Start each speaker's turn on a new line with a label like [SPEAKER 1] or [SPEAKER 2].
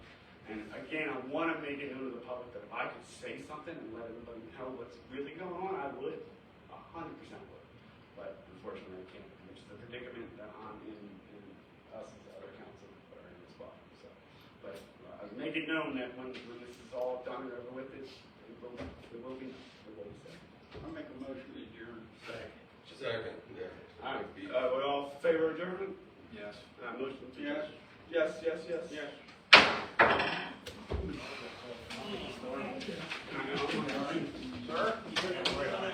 [SPEAKER 1] again, I want to make it known to the public that if I could say something and let everybody know what's really going on, I would, a hundred percent would. But unfortunately, I can't, which is a predicament that I'm in, and us as other council are in as well, so. But uh, I've made it known that when, when this is all done and over with, it's, it will, it will be, it will be said.
[SPEAKER 2] I'll make a motion to adjourn. Second.
[SPEAKER 3] Second, yeah.
[SPEAKER 1] All right, uh, we all favor adjournment?
[SPEAKER 2] Yes.
[SPEAKER 1] Uh, motion to.
[SPEAKER 2] Yes.
[SPEAKER 1] Yes, yes, yes.
[SPEAKER 2] Yes.
[SPEAKER 1] I know.
[SPEAKER 2] Sir?